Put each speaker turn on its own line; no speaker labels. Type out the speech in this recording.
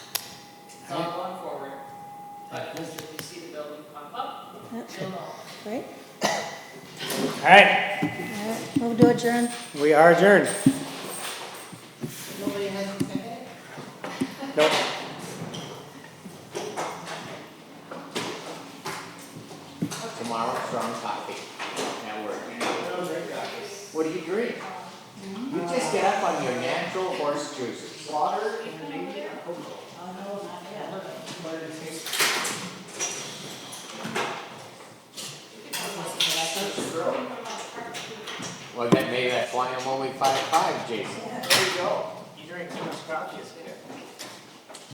Right?
All right,
All right, move to adjourn.
we are adjourned.
Nobody has a second?
Nope.
Tomorrow, strong coffee. Now we're. What do you drink? You just get up on your natural horse juices. Water Well, that, maybe that's why I'm only five five, Jason. There you go. You drink too much coffee.